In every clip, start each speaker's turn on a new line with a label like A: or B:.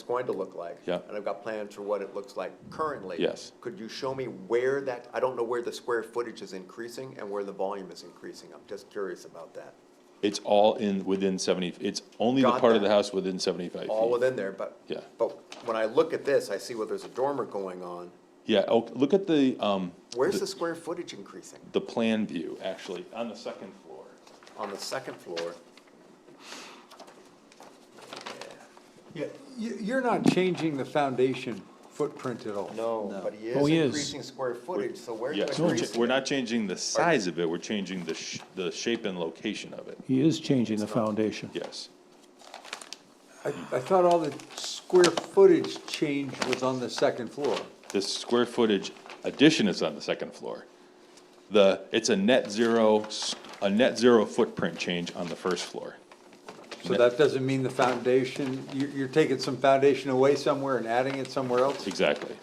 A: it's going to look like.
B: Yeah.
A: And I've got plans for what it looks like currently.
B: Yes.
A: Could you show me where that, I don't know where the square footage is increasing and where the volume is increasing. I'm just curious about that.
B: It's all in, within seventy, it's only the
A: Got
B: part of
A: that.
B: the house within seventy-five
A: All
B: feet.
A: within there, but.
B: Yeah.
A: But when I look at this, I see where there's a dormer going on.
B: Yeah, oh, look at the, um,
A: Where's the square footage increasing?
B: the plan view, actually, on the second floor.
A: On the second floor,
C: Yeah, you, you're not changing the foundation footprint at all.
A: no, but he is
D: Oh, he is.
A: increasing square footage, so where are you
B: Yes, we're cha-
A: increasing?
B: we're not changing the size of it, we're changing the sh- the shape and location of it,
D: He is changing the foundation.
B: yes.
C: I, I thought all the square footage change was on the second floor.
B: The square footage addition is on the second floor. The, it's a net zero, s- a net zero footprint change on the first floor.
C: So that doesn't mean the foundation, you, you're taking some foundation away somewhere and adding it somewhere else?
B: Exactly.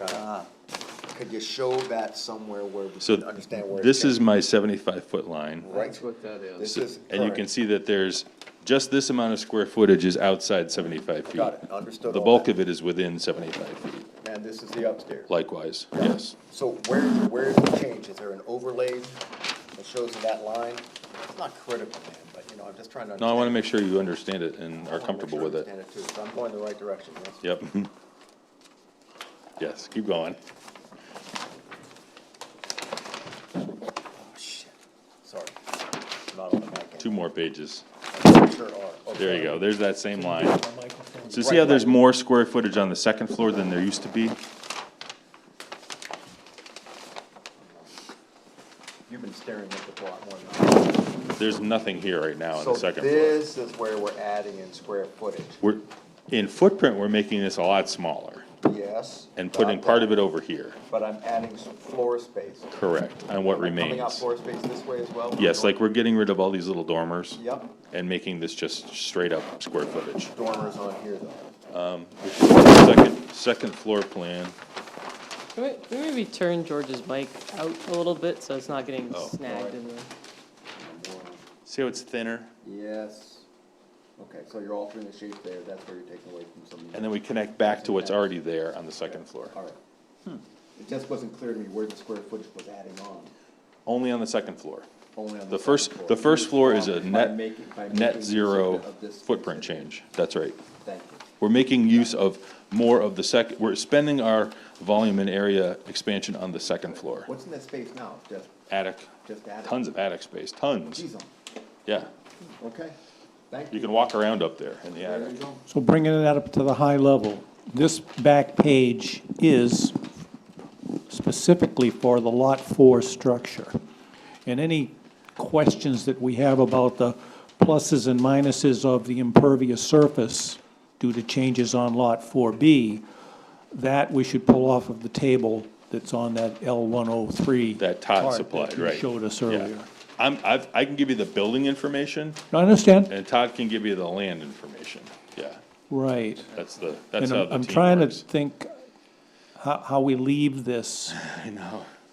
A: Could you show that somewhere where we
B: So
A: can understand where? it's
B: this
A: going?
B: is my seventy-five foot line.
A: Right. what that is. This is.
B: And you can
A: current.
B: see that there's, just this amount of square footage is outside seventy-five feet.
A: Got it, understood
B: The
A: all
B: bulk
A: that.
B: of it is within seventy-five feet,
A: And this is the upstairs.
B: likewise, yes.
A: So where, where's the change? Is there an overlay that shows that line? It's not critical, man, but you know, I'm just trying to.
B: No, I wanna
A: understand.
B: make sure you understand it and
A: I wanna
B: are
A: make
B: comfortable
A: sure I
B: with it.
A: understand too, so I'm going the right direction, yes?
B: Yep. Yes, keep going.
A: Oh, shit. Sorry. Not on the mic.
B: Two more pages.
A: I sure are. Oh,
B: There
A: sorry.
B: you go. There's that same line. So see
A: Right,
B: how there's
A: right.
B: more square footage on the second floor than there used to be?
A: You've been staring at the plot more than I have.
B: There's nothing here right now on the second
A: So
B: floor.
A: this is where we're adding in square footage,
B: We're, in footprint, we're making this a lot smaller
A: yes?
B: and putting part of it over here.
A: But I'm adding some floor space.
B: Correct, on what
A: Coming out
B: remains.
A: floor space this way as well?
B: Yes, like we're getting rid of all these little dormers.
A: Yep.
B: And making this just straight up square footage.
A: Dormers on here though.
B: Which is the Second, second floor plan.
E: Can we, can we maybe turn George's mic out a little bit so it's not getting
B: Oh.
E: snagged in the?
B: See how it's thinner?
A: Yes. Okay, so you're altering the shape there, that's where you're taking away from something.
B: And then we connect back to what's already there on the second floor.
A: Alright. It just wasn't clear to me where the square footage was adding on,
B: Only on the second floor.
A: only on the.
B: The first,
A: second
B: the first floor is a
A: By
B: net,
A: making- by making
B: net
A: use
B: zero
A: of this-
B: footprint change. That's right.
A: Thank you.
B: We're making use of more of the sec, we're spending our volume and area expansion on the second floor.
A: What's in that space now? Just,
B: Attic,
A: just adding?
B: tons of attic space, tons.
A: Geez, um,
B: Yeah,
A: okay, thank
B: you
A: you.
B: can walk around up there in the
A: There
B: attic.
A: you go.
D: So bringing it up to the high level, this back page is specifically for the Lot 4 structure. And any questions that we have about the pluses and minuses of the impervious surface due to changes on Lot 4B, that we should pull off of the table that's on that L103.
B: That Todd
D: chart that
B: supplied,
D: you
B: right.
D: showed us
B: Yeah.
D: earlier.
B: I'm, I've, I can give you the building information
D: I understand,
B: and Todd can give you the land information. Yeah,
D: right.
B: that's the, that's
D: And
B: how
D: I'm,
B: the
D: I'm
B: team
D: trying to
B: works.
D: think how, how we leave this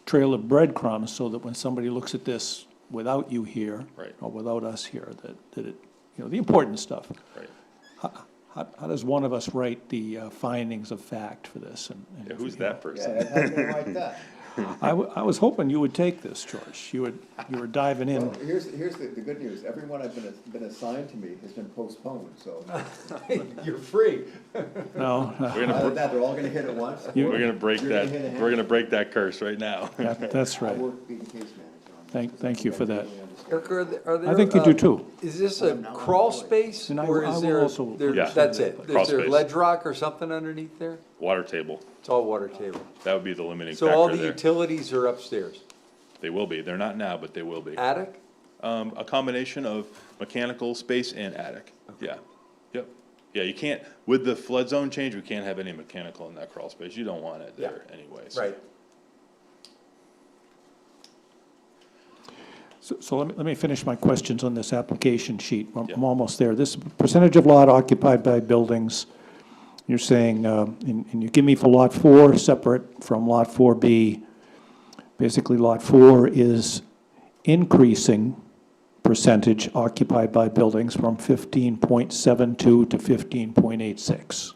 D: trail of breadcrumbs so that when somebody looks at this without you here.
B: Right.
D: Or without us here, that, that it, you know, the important stuff.
B: Right.
D: How, how does one of us write the uh, findings of fact for this and? and-
B: Yeah, Who's that person?
A: Yeah, how do you like that?
D: I, wa- I was hoping you would take this, George. You would, you were diving
A: Well,
D: in.
A: here's, here's the, the good news, everyone I've been, been assigned to me has been postponed, so.
C: You're free.
D: No, no,
B: We're
A: Either
B: gonna,
A: that, they're all gonna hit at once.
D: You-
B: we're gonna break
A: You're
B: that,
A: hit a hand.
B: we're gonna break that curse right now.
D: that- that's
A: I
D: right.
A: work being case manager on that.
D: Thank- thank you for that.
A: I understand.
C: Eric, are there, are there?
D: think you do
C: uh,
D: too.
C: Is this a crawl space
D: And I-
C: or is
D: I will
C: there,
D: also-
C: there-
B: Yeah.
C: that's it?
B: Crawl
C: Is there
B: space.
C: ledge rock or something underneath there?
B: Water table,
C: It's all water table.
B: that would be the limiting
C: So all
B: factor
C: the
B: there.
C: utilities are upstairs.
B: They will be, they're not now, but they will be.
C: Attic?
B: Um, a combination of mechanical space and attic, yeah, yep. Yeah, you can't, with the flood zone change, we can't have any mechanical in that crawl space, you don't want it
C: Yeah.
B: there anyways.
C: Right.
D: So, so let me, let me finish my questions on this application sheet. I'm- I'm
B: Yeah.
D: almost there. This percentage of lot occupied by buildings, you're saying, um, and, and you give me for lot four, separate from lot four B. Basically, lot four is increasing percentage occupied by buildings from fifteen point seven two to fifteen point eight six.